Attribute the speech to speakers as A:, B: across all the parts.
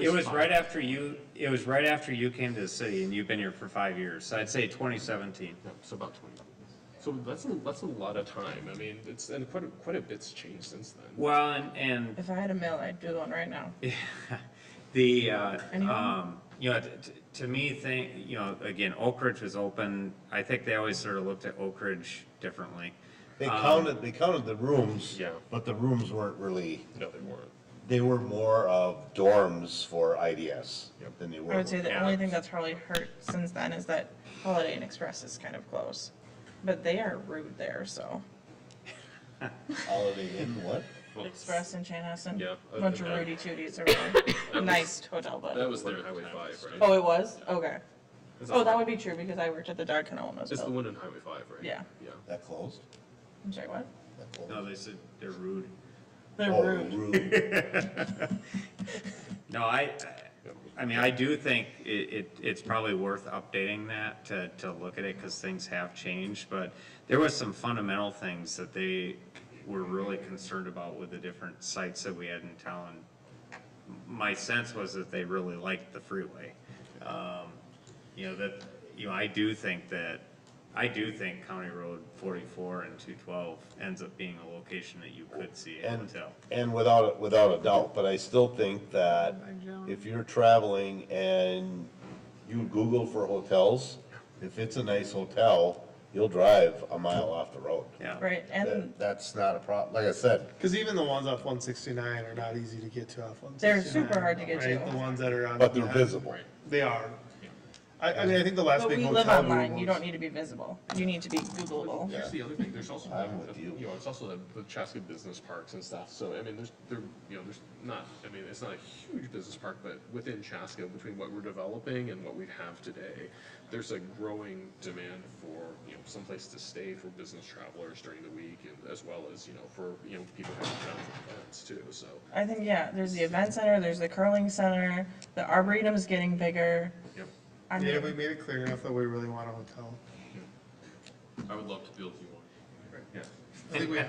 A: It was right after you, it was right after you came to the city and you've been here for five years, so I'd say twenty seventeen.
B: Yeah, so about twenty. So that's, a- that's a lot of time. I mean, it's, and quite, a- quite a bit's changed since then.
A: Well, and, and
C: If I had a mill, I'd do one right now.
A: The, uh,
C: Anyone?
A: um, you know, t- t- to me, thing, you know, again, Oak Ridge was open, I think they always sort of looked at Oak Ridge differently.
D: They counted, they counted the rooms.
B: Yeah.
D: But the rooms weren't really,
B: No, they weren't.
D: they were more of dorms for IDS
B: Yep.
D: than they
C: I
D: were.
C: would say the only thing that's probably hurt since then is that Holiday Inn Express is kind of close. But they are rude there, so.
D: Holiday Inn, what?
B: Well,
C: Express in Chanhassen.
B: Yeah,
C: A bunch of
B: that-
C: Rudy Tooties around. Nice hotel,
B: That
C: but.
B: was their Highway Five, right?
C: Oh, it was? Okay.
B: It's
C: Oh,
B: the-
C: that would be true because I worked at the Dog Kennel when it was
B: It's the
C: built.
B: one in Highway Five, right?
C: Yeah.
B: Yeah.
D: That closed?
C: I'm sorry, what?
D: That closed?
A: No, they said they're rude.
C: They're
D: Oh,
C: rude.
D: rude.
A: No, I, I mean, I do think it, it, it's probably worth updating that to, to look at it, cause things have changed, but there was some fundamental things that they were really concerned about with the different sites that we had in town. My sense was that they really liked the freeway. Um, you know, that, you know, I do think that, I do think County Road forty-four and two twelve ends up being a location that you could see a
D: And,
A: hotel.
D: and without, without a doubt, but I still think that if you're traveling and you Google for hotels, if it's a nice hotel, you'll drive a mile off the road.
A: Yeah.
C: Right, and
D: That- That's not a problem. Like I said,
E: Because even the ones off 169 are not easy to get to off 169.
C: They're super hard to get
E: right?
C: to.
E: The ones that are on.
D: but they're
E: that-
D: visible.
E: They are. I, I mean, I think the last
C: but
E: big
C: we
E: hotel.
C: live
E: boom
C: online, you
E: was-
C: don't need to be visible. You need to be Googleable.
B: Here's the other thing, there's also,
D: I'm
B: the-
D: with you.
B: you know, it's also the, the Chaska business parks and stuff, so, I mean, there's, there, you know, there's not, I mean, it's not a huge business park, but within Chaska, between what we're developing and what we have today, there's a growing demand for, you know, someplace to stay for business travelers during the week, and as well as, you know, for, you know, people having travel events too, so.
C: I think, yeah, there's the event center, there's the curling center, the arboretum's getting bigger.
B: Yep.
C: I
E: Yeah,
C: mean,
E: we made it clear enough that we really want a hotel.
B: I would love to build you one. Yeah.
E: I think we,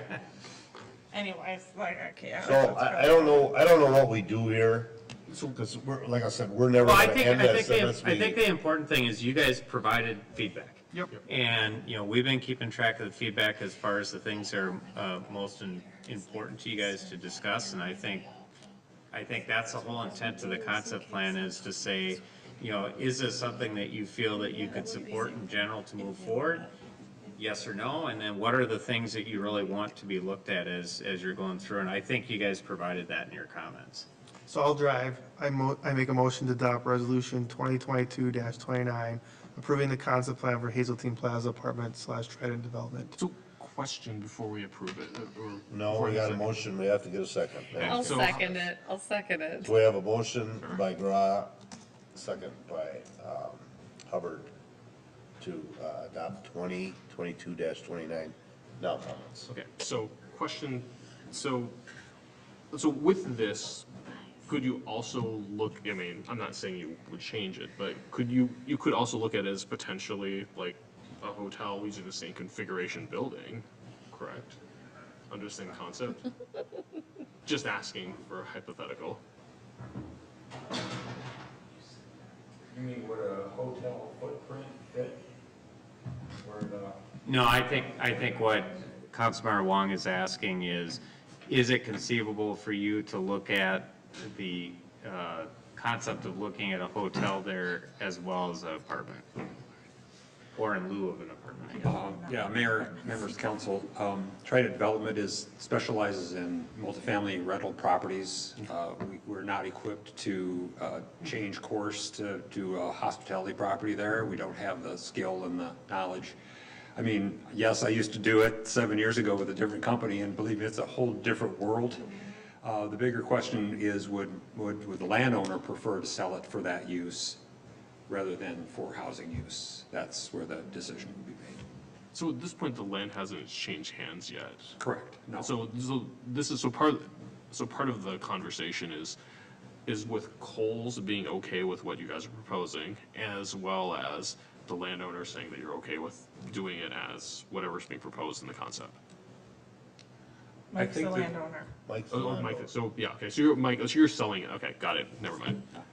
C: anyways, like, okay. I-
D: So I, I don't know, I don't know what we do here, because we're, like I said, we're never
A: Well, I
D: gonna
A: think,
D: end
A: I
D: this
A: think, the-
D: unless
A: I think
D: we.
A: the important thing is you guys provided feedback.
E: Yep.
A: And, you know, we've been keeping track of the feedback as far as the things that are, uh, most in- important to you guys to discuss, and I think, I think that's the whole intent of the concept plan is to say, you know, is this something that you feel that you could support in general to move forward? Yes or no, and then what are the things that you really want to be looked at as, as you're going through, and I think you guys provided that in your comments.
E: so I'll drive. I mo, I make a motion to adopt resolution 2022-29, approving the concept plan for Hazeltine Plaza Apartment slash Trident Development.
B: So, question before we approve it, or.
D: No, we got a motion, we have to get a second.
F: I'll
B: So-
F: second it, I'll second it.
D: We have a motion by Gra, second by, um, Hubbard to, uh, adopt twenty, twenty-two dash twenty-nine. Now comments.
B: Okay, so question, so, so with this, could you also look, I mean, I'm not saying you would change it, but could you, you could also look at it as potentially like a hotel using the same configuration building, correct? Under the same concept? Just asking for a hypothetical.
G: You mean would a hotel footprint fit? Where the
A: No, I think, I think what Councilmember Wong is asking is, is it conceivable for you to look at the uh, concept of looking at a hotel there as well as an apartment? Or in lieu of an apartment, I guess.
G: Um, Yeah, Mayor, members of council, um, Trident Development is, specializes in multifamily rental properties. Uh, we- We're not equipped to uh, change course to, to a hospitality property there. We don't have the skill and the knowledge. I mean, yes, I used to do it seven years ago with a different company, and believe me, it's a whole different world. Uh, The bigger question is, would, would, would the landowner prefer to sell it for that use rather than for housing use? That's where the decision would be made.
B: So at this point, the land hasn't changed hands yet.
G: Correct, no.
B: So, so this is, so part, so part of the conversation is, is with Coles being okay with what you guys are proposing, as well as the landowner saying that you're okay with doing it as whatever's being proposed in the concept.
C: Mike's the
G: think that-
C: landowner.
D: Mike's the
B: Oh,
D: landlord.
B: Mike, so, yeah, okay, so you're, Mike, so you're selling it, okay, got it, never mind.